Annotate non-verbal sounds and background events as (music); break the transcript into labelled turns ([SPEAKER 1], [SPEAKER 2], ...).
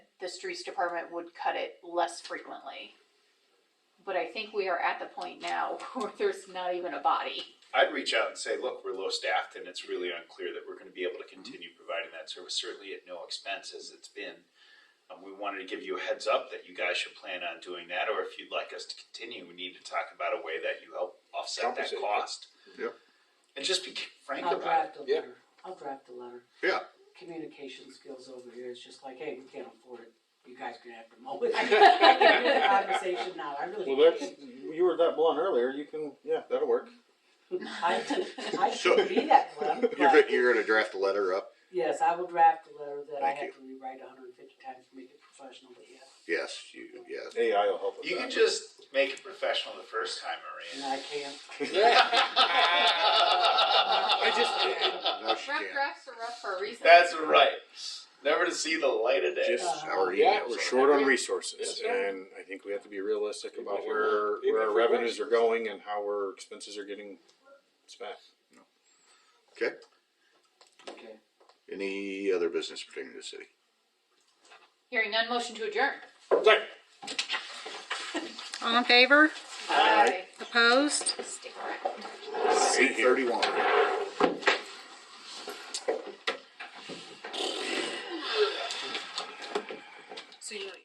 [SPEAKER 1] streets department would cut it less frequently. But I think we are at the point now (laughs) where there's not even a body.
[SPEAKER 2] I'd reach out and say, look, we're low staffed and it's really unclear that we're gonna be able to continue providing that service, certainly at no expense as it's been. Um, we wanted to give you a heads up that you guys should plan on doing that, or if you'd like us to continue, we need to talk about a way that you help offset that
[SPEAKER 3] Compensate, yeah.
[SPEAKER 2] cost.
[SPEAKER 4] Yep.
[SPEAKER 2] And just be frank
[SPEAKER 4] Oh,
[SPEAKER 5] I'll
[SPEAKER 2] about it.
[SPEAKER 5] draft a
[SPEAKER 3] Yeah.
[SPEAKER 5] letter, I'll draft a letter.
[SPEAKER 4] Yeah.
[SPEAKER 5] Communication skills over here, it's just like, hey, we can't afford it, you guys are gonna have (laughs) to mow it. I can do the
[SPEAKER 1] I
[SPEAKER 5] conversation now, I really
[SPEAKER 6] Well,
[SPEAKER 5] can't.
[SPEAKER 6] that's, you were that blunt earlier, you can, yeah, that'll work.
[SPEAKER 5] I,
[SPEAKER 4] (laughs)
[SPEAKER 5] I should be that blunt,
[SPEAKER 4] (laughs) You're,
[SPEAKER 5] but
[SPEAKER 4] go- you're gonna draft a letter up?
[SPEAKER 5] yes, I will draft a letter that I
[SPEAKER 4] Thank
[SPEAKER 5] have to rewrite hundred and fifty times to make it professional, but yes.
[SPEAKER 4] Yes, you, yes.
[SPEAKER 6] AI will help with
[SPEAKER 2] You
[SPEAKER 6] that.
[SPEAKER 2] can just make it professional the first time,
[SPEAKER 5] And
[SPEAKER 2] Maria. (laughs)
[SPEAKER 5] I can't,
[SPEAKER 2] I
[SPEAKER 5] Uh,
[SPEAKER 4] (laughs) No, she
[SPEAKER 1] Rough
[SPEAKER 4] can't.
[SPEAKER 1] drafts are rough for a reason.
[SPEAKER 2] That's right. Never to see the light of day.
[SPEAKER 4] Just
[SPEAKER 5] Uh,
[SPEAKER 4] our
[SPEAKER 3] yeah,
[SPEAKER 4] emails.
[SPEAKER 3] we're
[SPEAKER 4] are-
[SPEAKER 6] Short on
[SPEAKER 3] That's
[SPEAKER 6] resources,
[SPEAKER 3] right.
[SPEAKER 6] and I think we have to be realistic
[SPEAKER 3] Even
[SPEAKER 6] about
[SPEAKER 3] if it
[SPEAKER 6] where,
[SPEAKER 3] works. Even
[SPEAKER 6] where
[SPEAKER 3] if it
[SPEAKER 6] our
[SPEAKER 3] works.
[SPEAKER 6] revenues are going and how our expenses are getting spent.
[SPEAKER 4] Okay,
[SPEAKER 5] (laughs) okay.
[SPEAKER 4] any other business pertaining to the city?
[SPEAKER 1] Hearing none, motion to adjourn.
[SPEAKER 7] All in favor?
[SPEAKER 1] Aye.
[SPEAKER 7] Opposed?
[SPEAKER 1] Stick around.
[SPEAKER 4] Eight thirty-one.